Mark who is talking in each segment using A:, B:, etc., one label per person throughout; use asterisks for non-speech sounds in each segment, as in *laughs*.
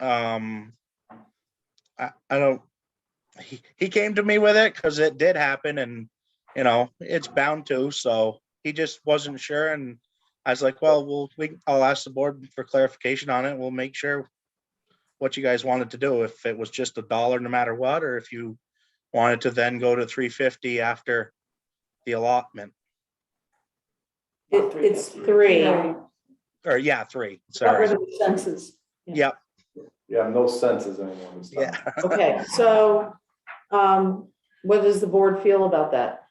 A: um, I, I don't, he, he came to me with it because it did happen and, you know, it's bound to, so he just wasn't sure and I was like, well, we'll, we, I'll ask the board for clarification on it. We'll make sure what you guys wanted to do, if it was just a dollar no matter what, or if you wanted to then go to three fifty after the allotment,
B: It, it's three.
A: or yeah, three,
B: Got
A: sorry.
B: rid of the Census.
C: Yeah, no senses anymore. this time.
A: Yeah,
B: Okay, so, um, what does the board feel about that?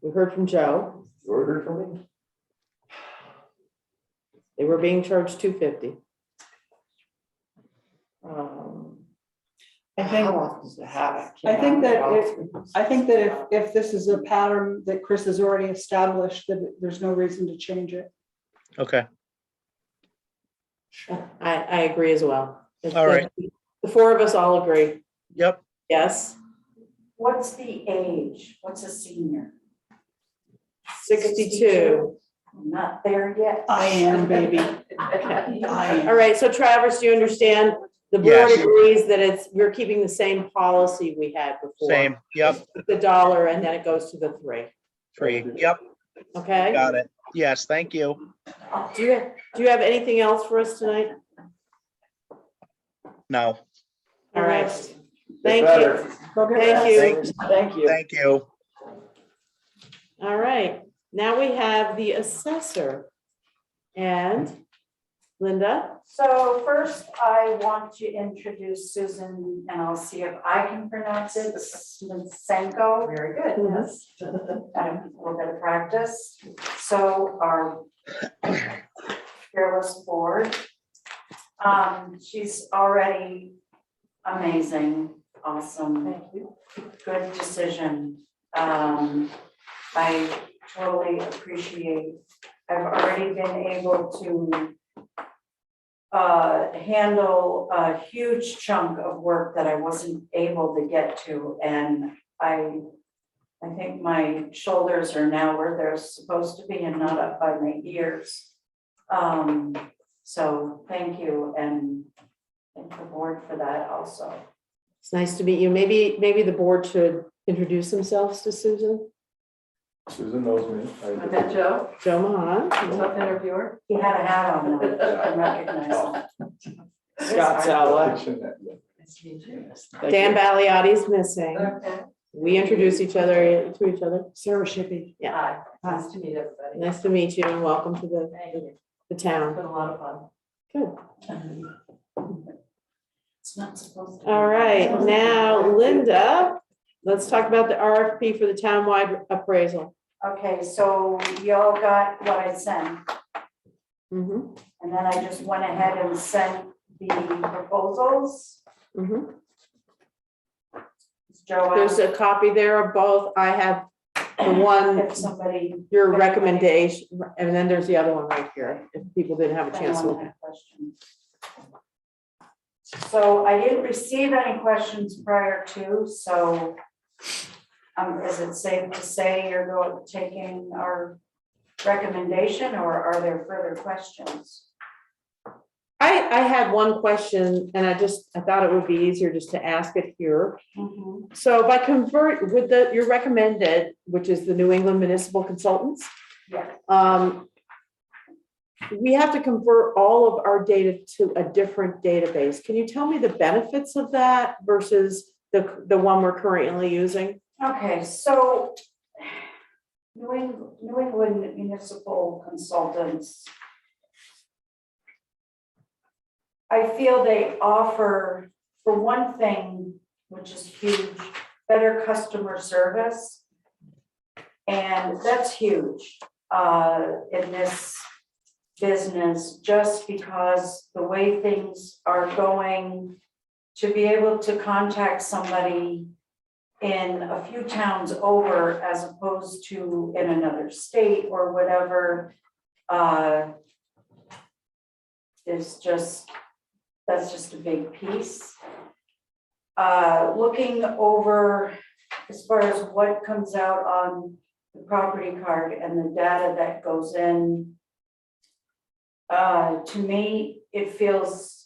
B: We heard from Joe.
C: You ordered for me?
B: They were being charged two fifty.
D: I think,
E: I think that if, I think that if, if this is a pattern that Chris has already established, that there's no reason to change it.
A: okay,
B: I, I agree as well.
A: All right.
B: The four of us all agree.
A: yep,
B: Yes,
F: What's the age? What's a senior?
B: sixty-two.
F: I'm Not there yet.
E: I am,
F: *laughs*
E: baby.
F: I
B: All right, so Travis, do you understand? The board
A: Yes.
B: agrees that it's, we're keeping the same policy we had before.
A: same, yep,
B: The dollar and then it goes to the three,
A: three, yep,
B: okay?
A: got it. Yes, thank you.
B: Do you, do you have anything else for us tonight?
A: No,
B: All right,
C: Get
B: thank
C: better.
B: you. Thank you.
E: Thank you.
A: thank you.
B: All right, now we have the assessor. And Linda,
F: So first, I want to introduce Susan, and I'll see if I can pronounce it, Senko. Very good, yes. Um, A little bit of practice. So our fearless board. Um, She's already amazing, awesome. Thank you. Good decision. Um, I totally appreciate, I've already been able to uh, handle a huge chunk of work that I wasn't able to get to, and I, I think my shoulders are now where they're supposed to be and not up by my ears. Um, so thank you, and thank the board for that also.
B: it's nice to meet you. Maybe, maybe the board should introduce themselves to Susan.
C: Susan knows me. I-
E: Joe,
B: Joe Mahan.
E: tough interviewer.
F: He had a hat on, and I didn't recognize him.
D: Scott Sala.
C: Kitchen that- yeah.
B: Dan Baliotti is missing. We introduce each other to each other.
E: Sarah Shippey.
F: Hi,
E: nice
F: to meet everybody.
B: Nice to meet you and welcome to the, the town.
F: been a lot of fun.
B: Good.
F: It's not supposed to. be.
B: All right, now Linda, let's talk about the RFP for the townwide appraisal.
F: Okay, so y'all got what I sent,
B: Mhm,
F: and then I just went ahead and sent the proposals.
B: mhm.
F: Joe
B: There's
F: asked
B: a copy there of both. I have the one,
F: if somebody.
B: your recommendation, and then there's the other one right here, if people didn't have a chance to look. at it.
F: had questions. So I didn't receive any questions prior to, so um, is it safe to say you're go- taking our recommendation, or are there further questions?
B: I, I had one question, and I just, I thought it would be easier just to ask it here. So if I convert with the, your recommended, which is the New England Municipal Consultants,
F: Yeah.
B: um, we have to convert all of our data to a different database. Can you tell me the benefits of that versus the, the one we're currently using?
F: Okay, so New England, New England Municipal Consultants. I feel they offer, for one thing, which is huge, better customer service. And that's huge, uh, in this business, just because the way things are going. To be able to contact somebody in a few towns over as opposed to in another state or whatever. uh, Is just, that's just a big piece. Uh, Looking over as far as what comes out on the property card and the data that goes in. uh, To me, it feels